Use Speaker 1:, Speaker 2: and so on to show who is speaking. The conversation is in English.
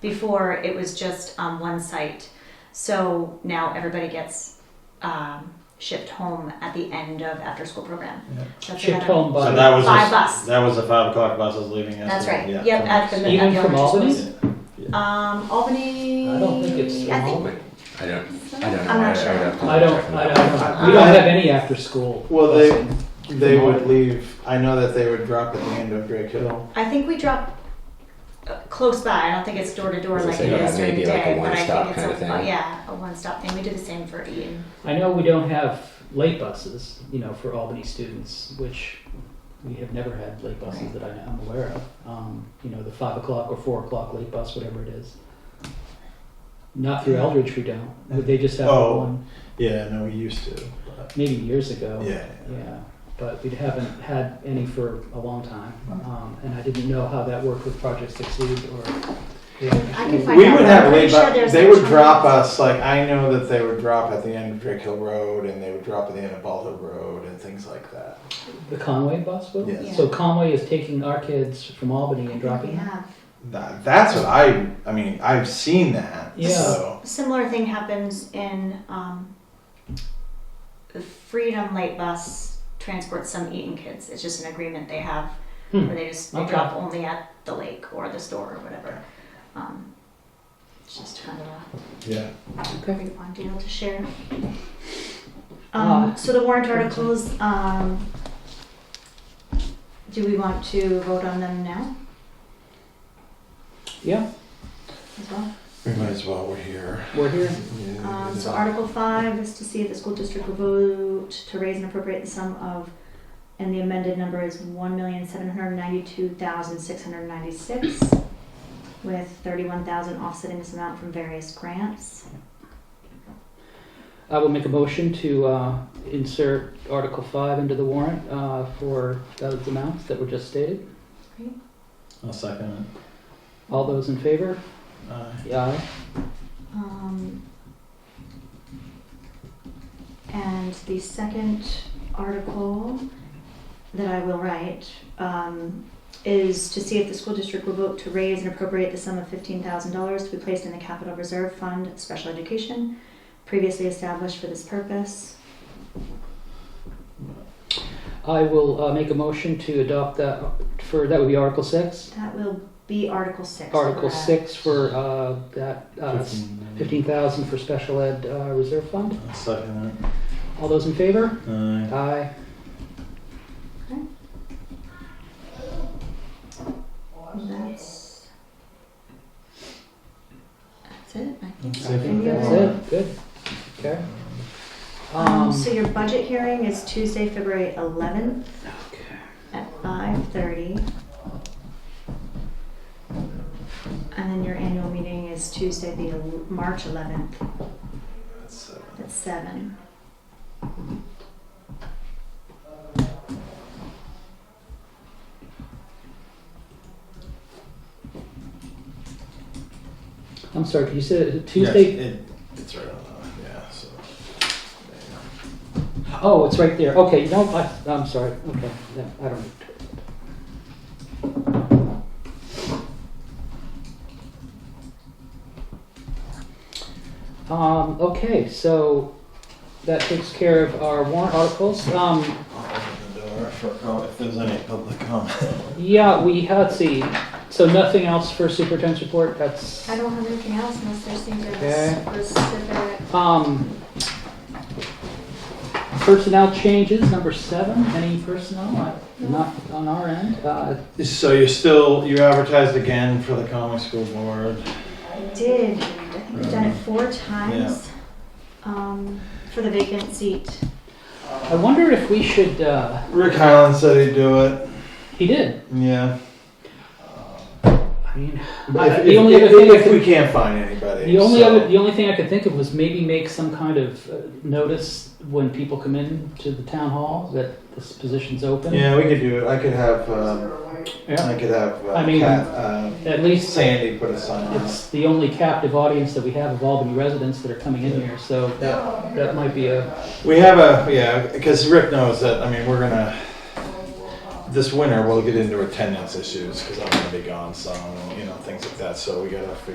Speaker 1: Before it was just on one site. So now everybody gets um, shipped home at the end of after school program.
Speaker 2: Yeah.
Speaker 1: That's
Speaker 2: Shipped
Speaker 1: another-
Speaker 2: home
Speaker 3: So that
Speaker 2: by,
Speaker 3: was
Speaker 1: By
Speaker 3: a-
Speaker 1: bus.
Speaker 3: That was the five o'clock buses leaving yesterday.
Speaker 1: That's right.
Speaker 3: Yeah.
Speaker 1: Yep, at the,
Speaker 2: Even
Speaker 1: at the
Speaker 2: from
Speaker 1: elementary
Speaker 2: Albany?
Speaker 1: schools. Um, Albany.
Speaker 2: I don't think it's
Speaker 1: I think-
Speaker 2: remote.
Speaker 4: I don't, I don't know.
Speaker 1: I'm
Speaker 4: I- I
Speaker 1: not
Speaker 4: would
Speaker 1: sure.
Speaker 4: have to
Speaker 2: I don't,
Speaker 4: check it
Speaker 2: I
Speaker 4: out.
Speaker 2: don't, we don't have any after-school.
Speaker 3: Well, they-
Speaker 2: busing.
Speaker 3: They would leave. I know that they would drop at the end of Drake Hill.
Speaker 1: I think we drop uh, close by. I don't think it's door to door
Speaker 4: As I
Speaker 1: like
Speaker 4: say,
Speaker 1: it
Speaker 4: yeah,
Speaker 1: is during the
Speaker 4: maybe like a
Speaker 1: day, but I
Speaker 4: one-stop
Speaker 1: think it's
Speaker 4: kind of
Speaker 1: a,
Speaker 4: thing.
Speaker 1: oh, yeah, a one-stop thing. We do the same for Eaton.
Speaker 2: I know we don't have late buses, you know, for Albany students, which we have never had late buses that I- I'm aware of. Um, You know, the five o'clock or four o'clock late bus, whatever it is. Not through Eldridge, we don't. They just have
Speaker 3: Oh.
Speaker 2: one,
Speaker 3: Yeah, no, we used to. But
Speaker 2: maybe years ago.
Speaker 3: yeah.
Speaker 2: Yeah, but we haven't had any for a long time. Um, And I didn't know how that worked with Project Succeed or.
Speaker 1: I can find
Speaker 3: We
Speaker 1: out.
Speaker 3: would
Speaker 1: I'm
Speaker 3: have
Speaker 1: pretty
Speaker 3: late
Speaker 1: sure
Speaker 3: bu-
Speaker 1: there's
Speaker 3: They
Speaker 1: a
Speaker 3: would
Speaker 1: Chinese-
Speaker 3: drop us, like, I know that they would drop at the end of Drake Hill Road and they would drop at the end of Baldo Road and things like that.
Speaker 2: The Conway bus will?
Speaker 3: Yes.
Speaker 1: Yeah.
Speaker 2: So Conway is taking our kids from Albany and
Speaker 1: We
Speaker 2: dropping them?
Speaker 1: have.
Speaker 3: That, that's what I, I mean, I've seen that.
Speaker 2: Yeah.
Speaker 3: So.
Speaker 1: A similar thing happens in um, the Freedom Light Bus transports some Eaton kids. It's just an agreement they have
Speaker 2: Hmm.
Speaker 1: where they just they
Speaker 2: Okay.
Speaker 1: drop only at the lake or the store or whatever. Um, it's just kind of a
Speaker 3: Yeah.
Speaker 1: Perfect one deal to share. Um,
Speaker 2: Uh,
Speaker 1: so the warrant articles, um, do we want to vote on them now
Speaker 2: Yeah,
Speaker 1: as well?
Speaker 3: We might as well, we're here.
Speaker 2: we're here.
Speaker 1: Um, so Article five is to see if the school district will vote to raise and appropriate the sum of, and the amended number is one million seven hundred ninety-two thousand six hundred ninety-six, with thirty-one thousand offsetting this amount from various grants.
Speaker 2: I will make a motion to uh, insert Article 5 into the warrant uh, for those amounts that were just stated.
Speaker 3: I'll second
Speaker 2: All those in favor?
Speaker 3: it. Uh,
Speaker 2: Aye.
Speaker 1: Um, and the second article that I will write um, is to see if the school district will vote to raise and appropriate the sum of fifteen thousand dollars to be placed in the capital reserve fund special education previously established for this purpose.
Speaker 2: I will uh, make a motion to adopt that for, that would be Article 6?
Speaker 1: That will be Article six.
Speaker 2: Article
Speaker 1: correct?
Speaker 2: 6 for uh, that, uh,
Speaker 3: 15.
Speaker 2: 15,000 for special ed uh, reserve fund.
Speaker 3: I'll second uh, it.
Speaker 2: All those in favor?
Speaker 3: Aye.
Speaker 2: Aye.
Speaker 1: That's. That's it. I think.
Speaker 3: That's it.
Speaker 2: That's it, good. Okay.
Speaker 1: Um,
Speaker 2: Um,
Speaker 1: so your budget hearing is Tuesday, February eleventh.
Speaker 2: okay.
Speaker 1: at five thirty. And then your annual meeting is Tuesday, the el- March eleventh
Speaker 3: That's it.
Speaker 1: at seven.
Speaker 2: I'm sorry, you said
Speaker 3: Yes,
Speaker 2: Tuesday?
Speaker 3: it, it's right on. the- Yeah. So.
Speaker 2: Oh, it's right there. Okay, no, I, I'm sorry. Okay, no, I don't. Um, okay, so that takes care of our warrant articles. Um,
Speaker 3: I'll open the door for com- if there's any public comment.
Speaker 2: yeah, we, let's see. So nothing else for superintendent's report? That's.
Speaker 1: I don't have anything else unless there's things
Speaker 2: Okay.
Speaker 1: that are specific.
Speaker 2: Um, personnel changes, number seven, any personnel, uh, not on our end, uh,
Speaker 3: So you're still you advertised again for the comic school board.
Speaker 1: I did, I think I've done it four times, um, for the vacant seat.
Speaker 2: I wonder if we should, uh,
Speaker 3: Rick Highland said he'd do it.
Speaker 2: he did,
Speaker 3: Yeah.
Speaker 2: I mean,
Speaker 3: If,
Speaker 2: I-
Speaker 3: if,
Speaker 2: Uh, the only other
Speaker 3: if-
Speaker 2: thing I
Speaker 3: if we
Speaker 2: could,
Speaker 3: can't find anybody.
Speaker 2: the only
Speaker 3: so-
Speaker 2: other, the only thing I could think of was maybe make some kind of uh, notice when people come in to the town hall that this position's open.
Speaker 3: Yeah, we could do it. I could have. Um, I
Speaker 2: Yeah.
Speaker 3: could have. Uh,
Speaker 2: I mean-
Speaker 3: Kat, uh,
Speaker 2: At least
Speaker 3: Sandy put a sign on. it.
Speaker 2: it's the only captive audience that we have of Albany residents that are coming in here, so that, that might be a,
Speaker 3: We have a yeah, because Rick knows that. I mean, we're gonna this winter we'll get into attendance issues because I'm gonna be gone some, you know, things like that. So we gotta figure